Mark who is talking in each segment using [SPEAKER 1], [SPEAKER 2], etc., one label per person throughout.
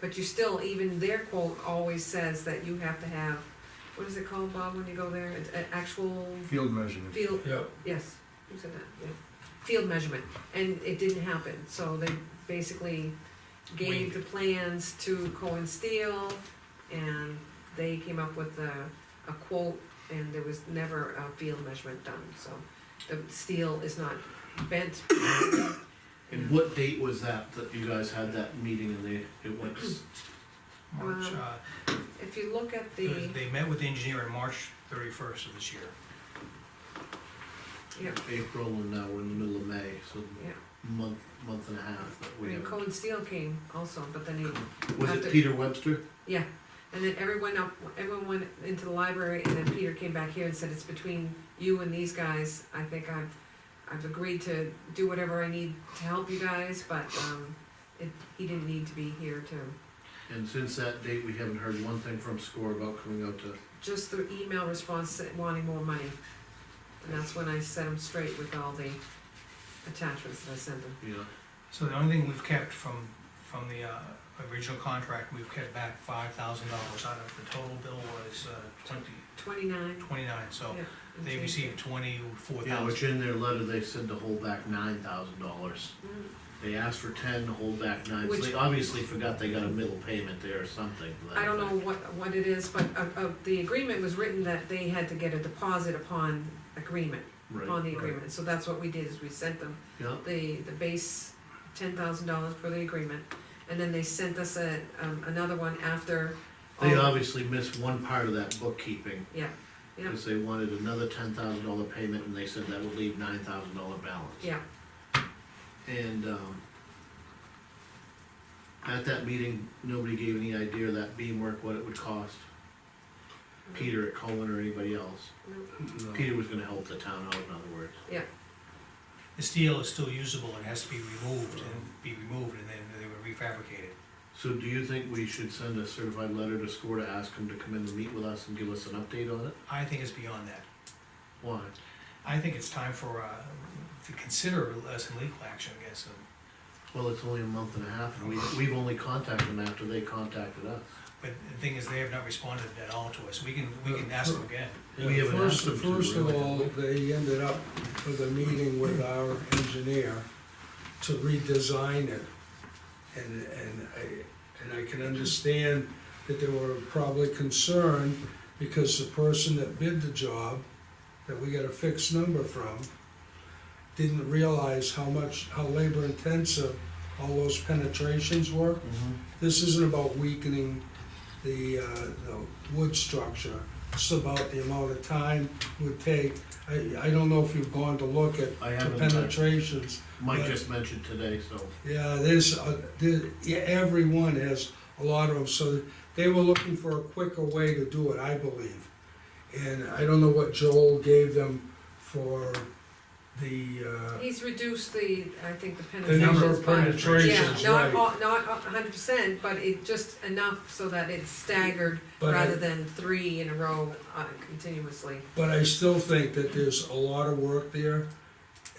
[SPEAKER 1] But you still, even their quote always says that you have to have, what is it called, Bob, when you go there, An- an actual
[SPEAKER 2] Field measurement.
[SPEAKER 1] field,
[SPEAKER 3] Yeah,
[SPEAKER 1] yes, you said that, yeah. Field measurement, and it didn't happen, so they basically gave the plans to Cohen Steel, and they came up with a, a quote, and there was never a field measurement done, so the steel is not bent.
[SPEAKER 4] And what date was that, that you guys had that meeting and they, it went, s-
[SPEAKER 5] March,
[SPEAKER 1] Um,
[SPEAKER 5] uh,
[SPEAKER 1] If you look at
[SPEAKER 5] it
[SPEAKER 1] the,
[SPEAKER 5] was- they met with the engineer on March thirty-first of this year.
[SPEAKER 1] yeah,
[SPEAKER 4] April and now we're in the middle of May, so
[SPEAKER 1] yeah,
[SPEAKER 4] month, month and a half that
[SPEAKER 1] I
[SPEAKER 4] we
[SPEAKER 1] mean,
[SPEAKER 4] have.
[SPEAKER 1] Cohen Steel came also, but then he
[SPEAKER 4] Was
[SPEAKER 1] after-
[SPEAKER 4] it Peter Webster?
[SPEAKER 1] Yeah, and then everyone up, everyone went into the library, and then Peter came back here and said, it's between you and these guys, I think I've, I've agreed to do whatever I need to help you guys, but, um, it, he didn't need to be here to,
[SPEAKER 4] And since that date, we haven't heard one thing from SCORE about coming out to,
[SPEAKER 1] just the email response said wanting more money. And that's when I set him straight with all the attachments that I sent him.
[SPEAKER 4] you know,
[SPEAKER 5] So the only thing we've kept from, from the, uh, original contract, we've kept back five thousand dollars out of, the total bill was, uh, twenty,
[SPEAKER 1] Twenty-nine.
[SPEAKER 5] twenty-nine, so
[SPEAKER 1] yeah, and
[SPEAKER 5] they
[SPEAKER 1] change.
[SPEAKER 5] received twenty-four
[SPEAKER 4] yeah,
[SPEAKER 5] thousand.
[SPEAKER 4] which in their letter, they said to hold back nine thousand dollars.
[SPEAKER 1] Mm,
[SPEAKER 4] They asked for ten, to hold back nine, so
[SPEAKER 1] Which-
[SPEAKER 4] they obviously forgot they got a middle payment there or something. to that
[SPEAKER 1] I don't
[SPEAKER 4] effect.
[SPEAKER 1] know what, what it is, but, uh, uh, the agreement was written that they had to get a deposit upon agreement.
[SPEAKER 4] Right,
[SPEAKER 1] on the
[SPEAKER 4] right.
[SPEAKER 1] agreement, so that's what we did, is we sent them
[SPEAKER 4] Yeah,
[SPEAKER 1] the, the base ten thousand dollars for the agreement, and then they sent us a, um, another one after.
[SPEAKER 4] they
[SPEAKER 1] all-
[SPEAKER 4] obviously missed one part of that bookkeeping,
[SPEAKER 1] Oh. Yeah, yeah,
[SPEAKER 4] because they wanted another ten thousand dollar payment, and they said that would leave nine thousand dollar balance.
[SPEAKER 1] yeah,
[SPEAKER 4] And, um, at that meeting, nobody gave any idea of that beam work, what it would cost. Peter at Cohen or anybody else.
[SPEAKER 1] no,
[SPEAKER 4] Peter was gonna help the town out, in other words.
[SPEAKER 1] yeah,
[SPEAKER 5] The steel is still usable and has to be removed and be removed and then they were refabricated.
[SPEAKER 4] So do you think we should send a certified letter to SCORE to ask them to come in and meet with us and give us an update on it?
[SPEAKER 5] I think it's beyond that.
[SPEAKER 4] Why?
[SPEAKER 5] I think it's time for, uh, to consider uh, some legal action against them.
[SPEAKER 4] Well, it's only a month and a half, and we, we've only contacted them after they contacted us.
[SPEAKER 5] But the thing is, they have not responded at all to us. We can, we can ask them again.
[SPEAKER 4] We haven't asked
[SPEAKER 3] First,
[SPEAKER 4] them to,
[SPEAKER 3] first of
[SPEAKER 4] really.
[SPEAKER 3] all, they ended up with a meeting with our engineer to redesign it. And, and I, and I can understand that they were probably concerned because the person that bid the job, that we got a fixed number from, didn't realize how much, how labor intensive all those penetrations were. This isn't about weakening the, uh, the wood structure, it's about the amount of time it would take. I, I don't know if you've gone to look at
[SPEAKER 4] I
[SPEAKER 3] the
[SPEAKER 4] haven't, uh,
[SPEAKER 3] penetrations.
[SPEAKER 4] Mike just mentioned today, so.
[SPEAKER 3] Yeah, there's, uh, there, yeah, everyone has a lot of them, so they were looking for a quicker way to do it, I believe. And I don't know what Joel gave them for the, uh,
[SPEAKER 1] he's reduced the, I think, the
[SPEAKER 3] the
[SPEAKER 1] penetrations by.
[SPEAKER 3] number of
[SPEAKER 1] Yeah,
[SPEAKER 3] penetrations,
[SPEAKER 1] not,
[SPEAKER 3] right.
[SPEAKER 1] all- not a hundred percent, but it just enough so that it's staggered,
[SPEAKER 3] But I-
[SPEAKER 1] rather than three in a row uh, continuously.
[SPEAKER 3] But I still think that there's a lot of work there.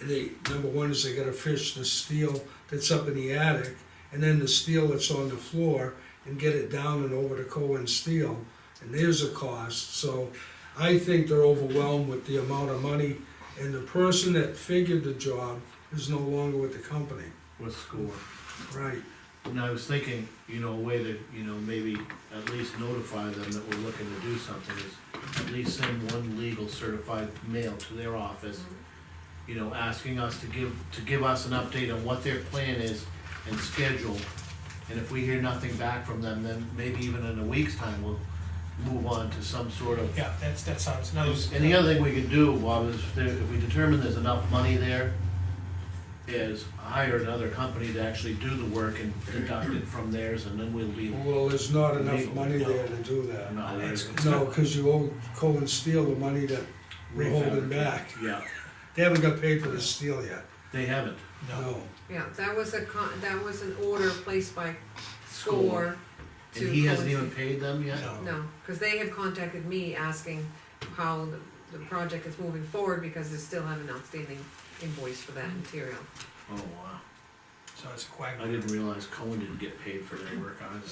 [SPEAKER 3] They, number one is they gotta fish the steel that's up in the attic, and then the steel that's on the floor, and get it down and over to Cohen Steel, and there's a cost, so I think they're overwhelmed with the amount of money, and the person that figured the job is no longer with the company.
[SPEAKER 4] with SCORE.
[SPEAKER 3] Right.
[SPEAKER 4] And I was thinking, you know, a way to, you know, maybe at least notify them that we're looking to do something is at least send one legal certified mail to their office, you know, asking us to give, to give us an update on what their plan is and schedule. And if we hear nothing back from them, then maybe even in a week's time, we'll move on to some sort of.
[SPEAKER 5] Yeah, that's, that sounds, no, it's-
[SPEAKER 4] And the other thing we could do, Bob, is if there- if we determine there's enough money there, is hire another company to actually do the work and deduct it from theirs, and then we'll be.
[SPEAKER 3] Well, there's not enough money there to do that.
[SPEAKER 4] No,
[SPEAKER 5] It's- it's
[SPEAKER 3] No,
[SPEAKER 5] not-
[SPEAKER 3] cause you owe Cohen Steel the money that we're holding
[SPEAKER 4] refabricate.
[SPEAKER 3] back.
[SPEAKER 4] Yeah,
[SPEAKER 3] They haven't got paid for the steel yet.
[SPEAKER 4] they haven't.
[SPEAKER 5] No,
[SPEAKER 3] No.
[SPEAKER 1] Yeah, that was a con, that was an order placed by SCORE to.
[SPEAKER 4] And he hasn't
[SPEAKER 1] Cohen
[SPEAKER 4] even paid them yet?
[SPEAKER 5] no.
[SPEAKER 1] No, because they have contacted me asking how the- the project is moving forward, because they still have an outstanding invoice for that material.
[SPEAKER 4] Oh, wow.
[SPEAKER 5] So it's a
[SPEAKER 4] I
[SPEAKER 5] quagmire.
[SPEAKER 4] didn't realize Cohen didn't get paid for their work either.